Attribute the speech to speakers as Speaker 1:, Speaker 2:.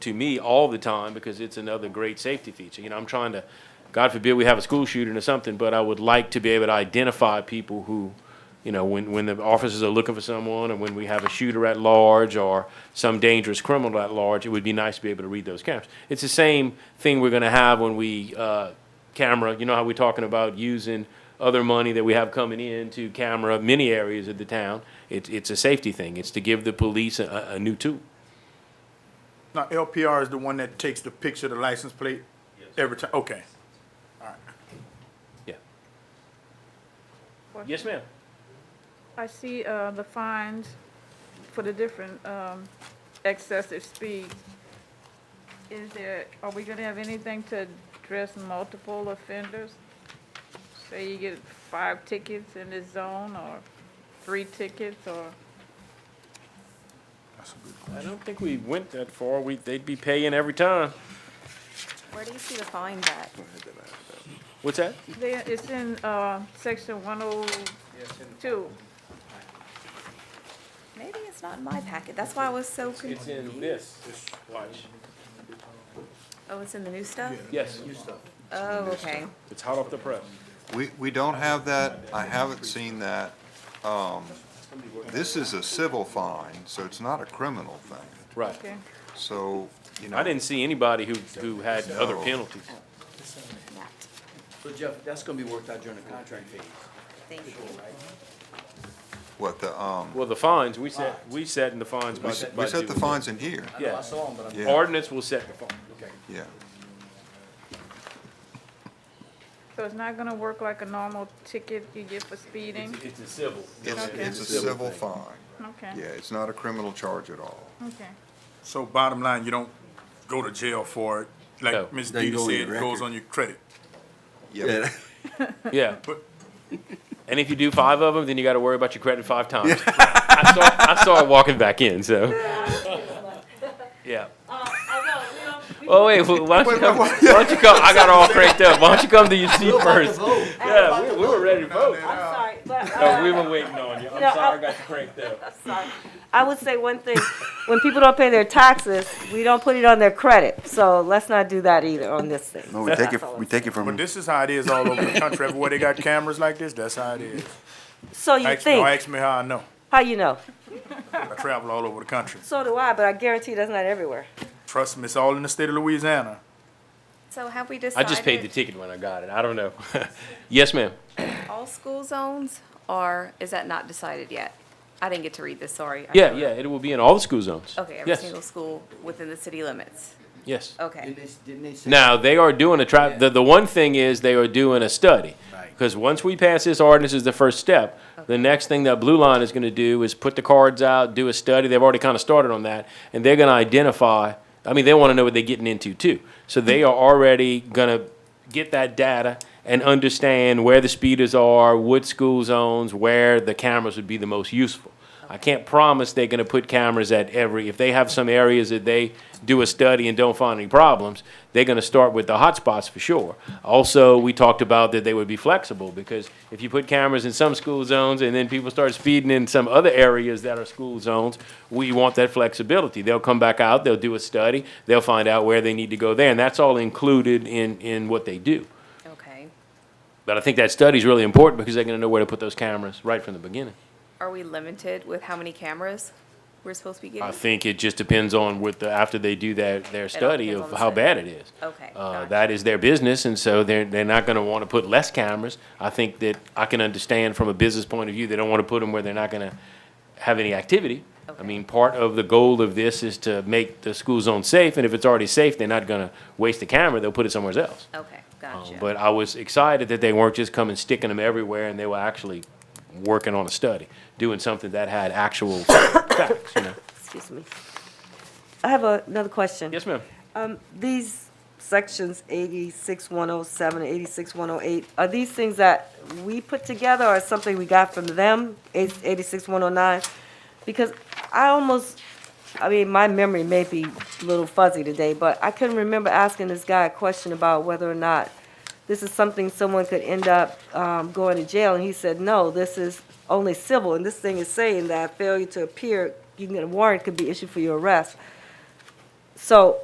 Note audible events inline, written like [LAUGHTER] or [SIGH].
Speaker 1: to me all the time because it's another great safety feature. You know, I'm trying to, God forbid we have a school shooting or something, but I would like to be able to identify people who, you know, when, when the officers are looking for someone or when we have a shooter at large or some dangerous criminal at large, it would be nice to be able to read those cameras. It's the same thing we're going to have when we, uh, camera, you know how we're talking about using other money that we have coming in to camera many areas of the town. It's, it's a safety thing. It's to give the police a, a a new tool.
Speaker 2: Now, LPR is the one that takes the picture of the license plate every time, okay.
Speaker 1: Yeah. Yes, ma'am.
Speaker 3: I see uh, the fines for the different um, excessive speeds. Is there, are we going to have anything to address multiple offenders? Say you get five tickets in this zone, or three tickets, or,
Speaker 2: That's a good
Speaker 1: I
Speaker 2: question.
Speaker 1: don't think we went that far. We, they'd be paying every time.
Speaker 4: Where do you see the fines at?
Speaker 1: What's that?
Speaker 3: There- it's in uh, section 102.
Speaker 4: Maybe it's not in my packet, that's why I was so
Speaker 1: It's
Speaker 4: confused.
Speaker 1: in this. Watch.
Speaker 4: Oh, it's in the new stuff?
Speaker 1: Yes,
Speaker 4: Oh, okay.
Speaker 1: it's hot off the press.
Speaker 5: We, we don't have that, I haven't seen that. Um, This is a civil fine, so it's not a criminal thing.
Speaker 1: Right.
Speaker 3: Okay.
Speaker 5: So, you know.
Speaker 1: I didn't see anybody who, who had other
Speaker 5: No.
Speaker 1: penalties.
Speaker 4: Matt,
Speaker 6: So Jeff, that's gonna be worked out during the contract phase.
Speaker 4: thank you.
Speaker 5: What the, um,
Speaker 1: Well, the fines, we set, we set in the fines by.
Speaker 5: we set- we set the fines in here,
Speaker 6: I know
Speaker 1: Yeah.
Speaker 6: I saw him, but I'm.
Speaker 5: Yeah.
Speaker 1: Ordinance will set the fine.
Speaker 6: Okay.
Speaker 5: yeah.
Speaker 3: So it's not going to work like a normal ticket you get for speeding?
Speaker 1: It's a civil.
Speaker 5: It's,
Speaker 3: Okay.
Speaker 5: it's a civil fine.
Speaker 3: Okay.
Speaker 5: Yeah, it's not a criminal charge at all.
Speaker 3: Okay.
Speaker 2: So bottom line, you don't go to jail for it,
Speaker 1: No.
Speaker 2: like Ms.
Speaker 6: Doesn't
Speaker 2: Didi
Speaker 6: go on
Speaker 2: said,
Speaker 6: your
Speaker 2: it goes
Speaker 6: record.
Speaker 2: on your credit.
Speaker 5: Yep.
Speaker 1: Yeah.
Speaker 2: But-
Speaker 1: [LAUGHS] And if you do five of them, then you gotta worry about your credit five times. [LAUGHS] I saw, I saw her walking back in, so. Yeah.
Speaker 4: Uh,
Speaker 1: Oh, wait, wh- why don't you
Speaker 5: [LAUGHS]
Speaker 1: come, why don't you come, I got all cranked up, why don't you come to your seat first? Yeah, we, we were ready to vote.
Speaker 4: Oh, I'm sorry, but, uh,
Speaker 1: No, we were waiting on you, I'm
Speaker 4: No,
Speaker 1: sorry I got you cranked up.
Speaker 4: sorry. I would say one thing, when people don't pay their taxes, we don't put it on their credit, so let's not do that either on this thing.
Speaker 7: No, we take it, we take it
Speaker 2: But
Speaker 7: from,
Speaker 2: this is how it is all over the country, everywhere they
Speaker 4: [LAUGHS]
Speaker 2: got cameras like this, that's how it is.
Speaker 4: So you
Speaker 2: Ask, no,
Speaker 4: think,
Speaker 2: ask me how I know,
Speaker 4: how you know?
Speaker 2: I travel all over the country.
Speaker 4: So do I, but I guarantee that's not everywhere.
Speaker 2: Trust me, it's all in the state of Louisiana.
Speaker 4: So have we
Speaker 1: I
Speaker 4: decided?
Speaker 1: just paid the ticket when I got it, I don't know. [LAUGHS] Yes, ma'am.
Speaker 4: All school zones, or is that not decided yet? I didn't get to read this, sorry. I
Speaker 1: Yeah,
Speaker 4: should-
Speaker 1: yeah, it will be in all the school zones.
Speaker 4: Okay, every
Speaker 1: Yes,
Speaker 4: single school within the city limits,
Speaker 1: yes.
Speaker 4: okay.
Speaker 6: Didn't they, didn't they say?
Speaker 1: Now, they are doing a tra- the, the one thing is they are doing a study.
Speaker 6: Right.
Speaker 1: Because once we pass this ordinance is the first step, the next thing that Blue Line is gonna do is put the cards out, do a study, they've already kinda started on that, and they're gonna identify, I mean, they wanna know what they're getting into too. So they are already gonna get that data and understand where the speeders are, what school zones, where the cameras would be the most useful. I can't promise they're gonna put cameras at every, if they have some areas that they do a study and don't find any problems, they're gonna start with the hotspots for sure. Also, we talked about that they would be flexible, because if you put cameras in some school zones and then people start speeding in some other areas that are school zones, we want that flexibility. They'll come back out, they'll do a study, they'll find out where they need to go there, and that's all included in, in what they do.
Speaker 4: Okay.
Speaker 1: But I think that study's really important, because they're gonna know where to put those cameras right from the beginning.
Speaker 4: Are we limited with how many cameras we're supposed to be
Speaker 1: I
Speaker 4: getting?
Speaker 1: think it just depends on what the, after they do their, their study
Speaker 4: depends on
Speaker 1: of
Speaker 4: the
Speaker 1: how
Speaker 4: study.
Speaker 1: bad it is.
Speaker 4: Okay,
Speaker 1: Uh,
Speaker 4: gotcha.
Speaker 1: that is their business, and so they're, they're not gonna wanna put less cameras. I think that I can understand from a business point of view, they don't wanna put them where they're not gonna have any activity. I
Speaker 4: Okay.
Speaker 1: mean, part of the goal of this is to make the school zone safe, and if it's already safe, they're not gonna waste the camera, they'll put it somewhere else.
Speaker 4: Okay,
Speaker 1: Um,
Speaker 4: gotcha.
Speaker 1: But I was excited that they weren't just coming sticking them everywhere, and they were actually working on a study, doing something that had actual [COUGHS] facts, you know?
Speaker 8: Excuse me. I have a- another question.
Speaker 1: Yes, ma'am?
Speaker 8: Um, These sections 86107 and 86108, are these things that we put together or something we got from them, Eight- 86109? Because I almost, I mean, my memory may be a little fuzzy today, but I couldn't remember asking this guy a question about whether or not this is something someone could end up um, going to jail, and he said, no, this is only civil, and this thing is saying that failure to appear, you can get a warrant could be issued for your arrest. So